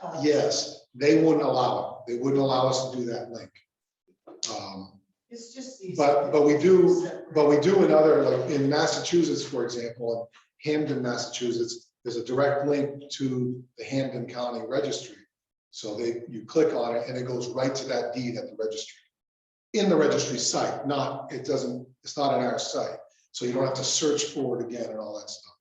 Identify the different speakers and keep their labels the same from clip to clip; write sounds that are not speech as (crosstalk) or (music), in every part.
Speaker 1: cost.
Speaker 2: Yes, they wouldn't allow it. They wouldn't allow us to do that link. Um,
Speaker 3: It's just. easy.
Speaker 2: But- but we do- But we do in other, like in Massachusetts, for example, in Hampden, Massachusetts, there's a direct link to the Hampden County Registry. So they, you click on it and it goes right to that deed at the registry. In the registry site, not, it doesn't, it's not in our site, so you don't have to search for it again and all that stuff.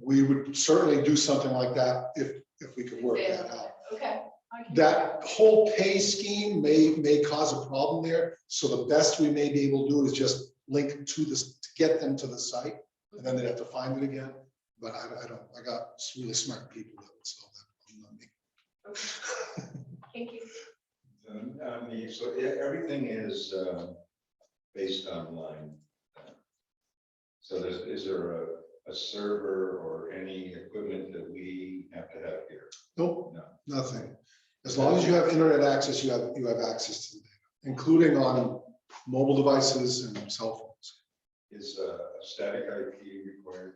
Speaker 2: We would certainly do something like that if, if we could work that out.
Speaker 1: Okay. I can-
Speaker 2: That whole pay scheme may, may cause a problem there, so the best we may be able to do is just link to this, to get them to the site, and then they'd have to find it again, but I, I don't, I got some really smart people that would solve that. problem, not me.
Speaker 1: Thank you.
Speaker 4: Um, I mean, so e- everything is uh, based online. So there's, is there a, a server or any equipment that we have to have here?
Speaker 2: Nope,
Speaker 4: No.
Speaker 2: nothing. As long as you have internet access, you have, you have access to the data, including on mobile devices and cell phones.
Speaker 4: Is uh, a static IP required?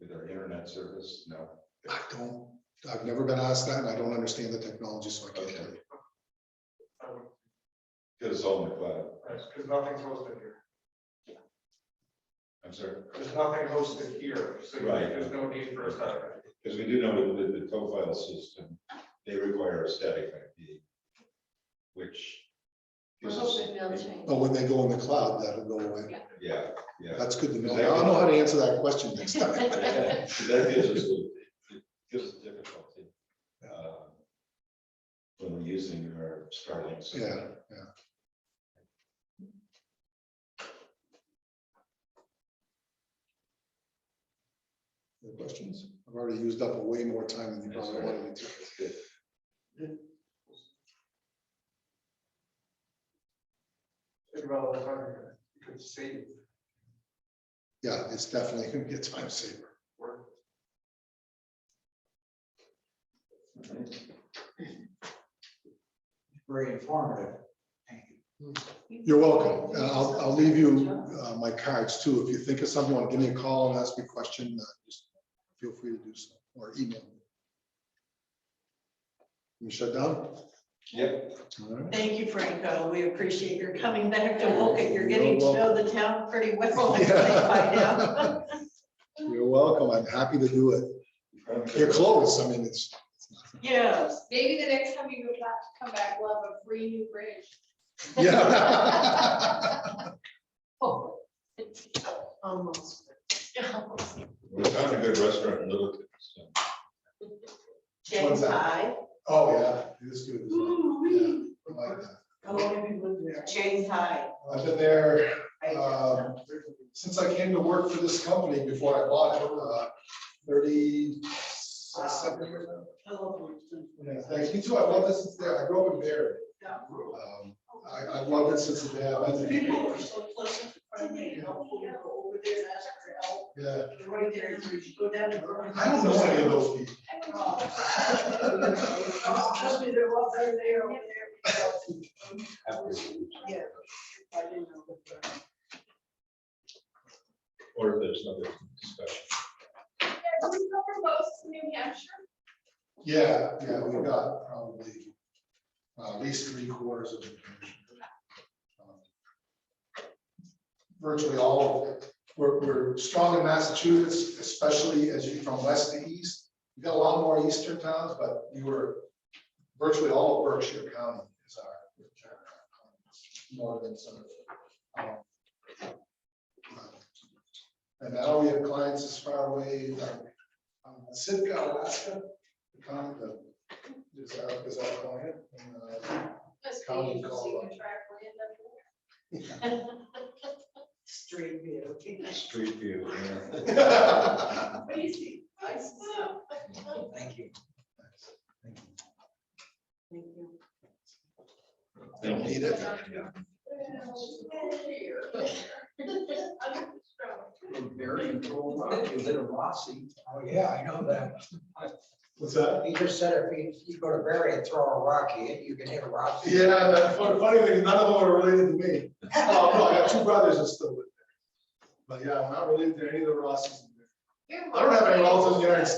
Speaker 4: With our internet service? No.
Speaker 2: I don't, I've never been asked that, and I don't understand the technology, so I can't tell you.
Speaker 4: Because it's all in the cloud.
Speaker 5: Because nothing's hosted here.
Speaker 4: I'm sorry.
Speaker 5: There's nothing hosted here, so
Speaker 4: Right.
Speaker 5: there's no need for a satellite.
Speaker 4: Because we do know with with the profile system, they require a static IP, which.
Speaker 1: We're
Speaker 4: gives us-
Speaker 1: hoping they'll change.
Speaker 2: But when they go in the cloud, that'll go away.
Speaker 4: Yeah, yeah.
Speaker 2: That's good to know. I'll know how to answer that question next time. (laughs)
Speaker 4: Yeah, That gives us, a- it gives us difficulty. uh, When we're using our Starlink.
Speaker 2: Yeah,
Speaker 4: signal.
Speaker 2: yeah. Any Questions? I've already used up way more time than you
Speaker 4: That's
Speaker 2: probably
Speaker 4: all right.
Speaker 2: wanted me to.
Speaker 4: That's good.
Speaker 5: Think about all the time here. You could save
Speaker 2: Yeah, it's definitely gonna be a time saver.
Speaker 5: work.
Speaker 6: very informative. Thank you.
Speaker 2: You're welcome. Uh, I'll, I'll leave you uh, my cards too. If you think of something, want to give me a call and ask me a question, uh, just feel free to do so, or email. me. You shut down?
Speaker 4: Yep,
Speaker 2: All right.
Speaker 7: Thank you, Franco. We appreciate your coming back to Woken. You're getting to
Speaker 2: You're
Speaker 7: know the town pretty
Speaker 2: (laughs)
Speaker 7: well, I think, by now.
Speaker 2: You're welcome. I'm happy to do it. You're close. I mean, it's,
Speaker 7: Yes.
Speaker 1: (laughs) Maybe the next time you go back, come back, we'll have a free new bridge.
Speaker 2: yeah. (laughs)
Speaker 1: Oh.
Speaker 7: Almost.
Speaker 4: we found a good restaurant in Littleton. so.
Speaker 7: James High.
Speaker 2: Oh, yeah. It is good.
Speaker 7: Ooh-wee.
Speaker 2: I like that.
Speaker 7: How long have you lived there? James High.
Speaker 2: I've been there,
Speaker 7: right?
Speaker 2: um, since I came to work for this company before I bought it, uh, thirty seven years now. Yeah, Thanks, me too. I love this. It's there. I grew up in Barry. Um, I, I love it since the day I was
Speaker 7: People
Speaker 2: there.
Speaker 7: are so pleasant, friendly, and helpful. You go over there and ask for help.
Speaker 2: Yeah.
Speaker 7: They're Right there, you should go down to Burlington.
Speaker 2: I don't know any of those people.
Speaker 7: Oh, Trust me, they're all there, they're over there. Yeah. I didn't know that.
Speaker 4: Or if there's another discussion.
Speaker 1: Yeah, do we cover most of New Hampshire?
Speaker 2: Yeah, yeah, we got probably uh, at least three quarters of it. Virtually all of it. We're, we're strong in Massachusetts, especially as you from west to east. We've got a lot more eastern towns, but you were virtually all of Berkshire County is our our northern suburb. Um, And now we have clients as far away as um, Sitka, Alaska the con, the, is that, is that calling it? And, uh,
Speaker 1: Must be
Speaker 2: Colin
Speaker 1: interesting
Speaker 2: Caldwell.
Speaker 1: to track where you end up.
Speaker 7: Street view.
Speaker 4: Street view. yeah.
Speaker 2: (laughs) yeah.
Speaker 1: Crazy. I see.
Speaker 6: Thank you.
Speaker 7: Thank you.
Speaker 4: Thank you.
Speaker 2: Need it.
Speaker 1: (laughs)
Speaker 6: Very informative, you live in Rossi. Oh, yeah, I know that.
Speaker 2: What's that?
Speaker 6: He just said if you, you go to Barry and throw a rock, you, you can hit a rock.
Speaker 2: Yeah, the fu- funny thing, is none of them are related to me. Oh, no, I got two brothers that still live there. But yeah, I'm not related to any of the Rosses. I don't have any relatives in the United States.